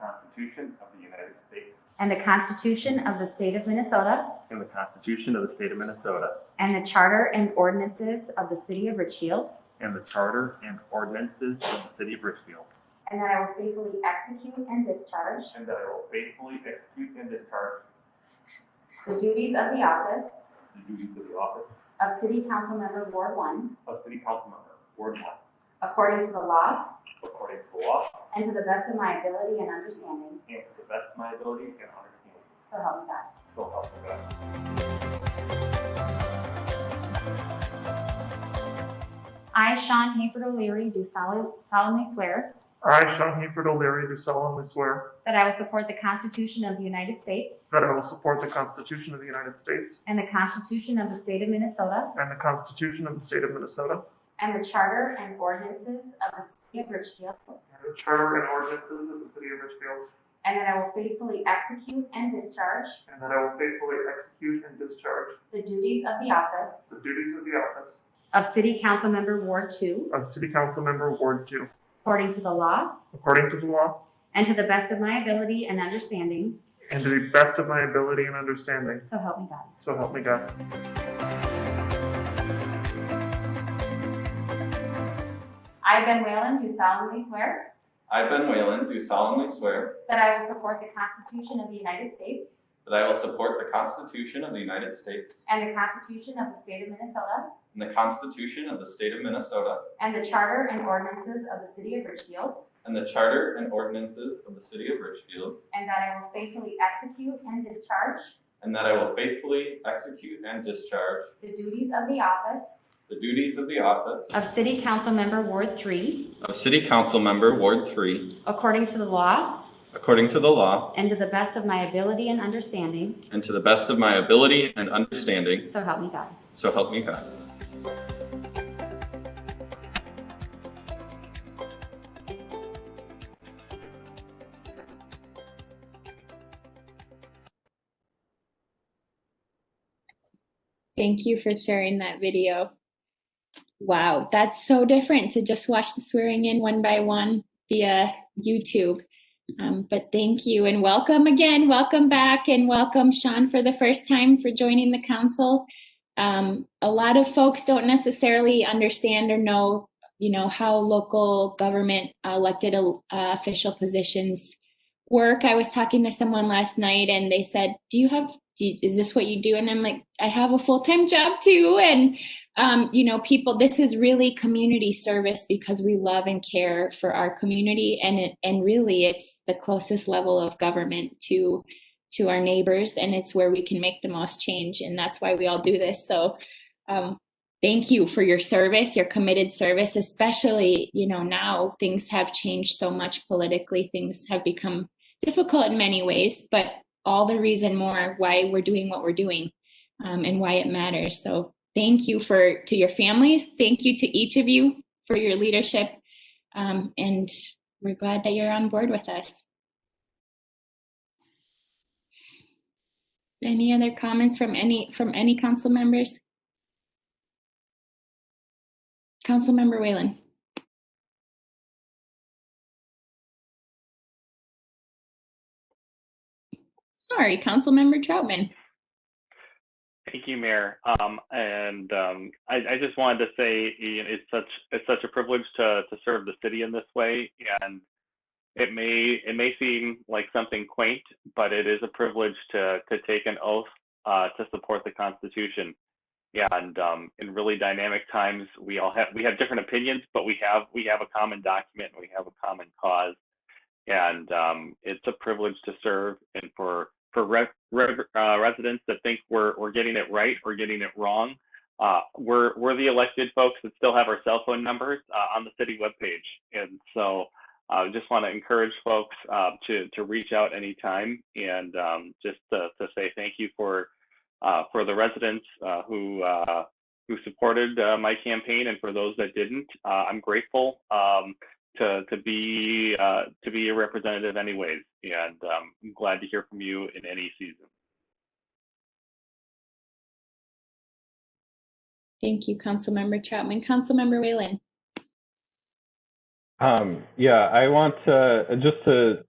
Constitution of the United States and the Constitution of the State of Minnesota and the Constitution of the State of Minnesota and the Charter and ordinances of the City of Richfield, and the Charter and ordinances of the City of Richfield. and that I will faithfully execute and discharge And that I will faithfully execute and discharge the duties of the office the duties of the office of City Council Member Ward One of City Council Member, Ward One, according to the law according to the law and to the best of my ability and understanding, and to the best of my ability and understanding. so help me God. So help me God. I, Sean Hayford O'Leary, do sol- solemnly swear I, Sean Hayford O'Leary, do solemnly swear that I will support the Constitution of the United States that I will support the Constitution of the United States and the Constitution of the State of Minnesota and the Constitution of the State of Minnesota and the Charter and ordinances of the City of Richfield, and the Charter and ordinances of the City of Richfield, and that I will faithfully execute and discharge and that I will faithfully execute and discharge the duties of the office the duties of the office of City Council Member Ward Two of City Council Member Ward Two, according to the law according to the law and to the best of my ability and understanding, and to the best of my ability and understanding. so help me God. So help me God. I, Ben Whalen, do solemnly swear I, Ben Whalen, do solemnly swear that I will support the Constitution of the United States that I will support the Constitution of the United States and the Constitution of the State of Minnesota and the Constitution of the State of Minnesota And the charter and ordinances of the city of Richfield. and the Charter and ordinances of the City of Richfield, And that I will faithfully execute and discharge and that I will faithfully execute and discharge the duties of the office. the duties of the office Of city council member Ward Three, of City Council Member, Ward 3, according to the law according to the law and to the best of my ability and understanding, and to the best of my ability and understanding, so help me God. so help me God. Thank you for sharing that video. Wow, that's so different to just watch the swearing in one by one via YouTube. Um, but thank you and welcome again. Welcome back and welcome, Sean, for the first time for joining the council. Um, a lot of folks don't necessarily understand or know, you know, how local government elected uh, official positions work. I was talking to someone last night and they said, Do you have, do you, is this what you do? And I'm like, I have a full time job too. And, um, you know, people, this is really community service because we love and care for our community. And, it, and really, it's the closest level of government to to our neighbors and it's where we can make the most change and that's why we all do this so um, thank you for your service your committed service especially you know now things have changed so much politically things have become difficult in many ways, but all the reason more why we're doing what we're doing um, and why it matters. So thank you for to your families. Thank you to each of you for your leadership, um, and we're glad that you're on board with us. Any other comments from any from any council members? Council member Whalen. Sorry, council member Troutman. Thank you, Mayor. Um, and um, I, I just wanted to say you know, it's such it's such a privilege to to serve the city in this way, and it may it may seem like something quaint, but it is a privilege to to take an oath uh, to support the Constitution. And um, in really dynamic times, we all have we have different opinions, but we have we have a common document, we have a common cause, and um, it's a privilege to serve and for for re- re- uh, residents that think we're we're getting it right or getting it wrong. Uh, we're we're the elected folks that still have our cell phone numbers uh, on the city webpage, and so I just want to encourage folks uh, to to reach out anytime and um, just to, to say thank you for uh, for the residents uh, who. Uh, who supported uh, my campaign and for those that didn't, uh, I'm grateful. Um, to to be uh, to be a representative anyways and um, i'm glad to hear from you in any season Thank you, council member Troutman. Council member Whalen. Um, yeah, I want to just to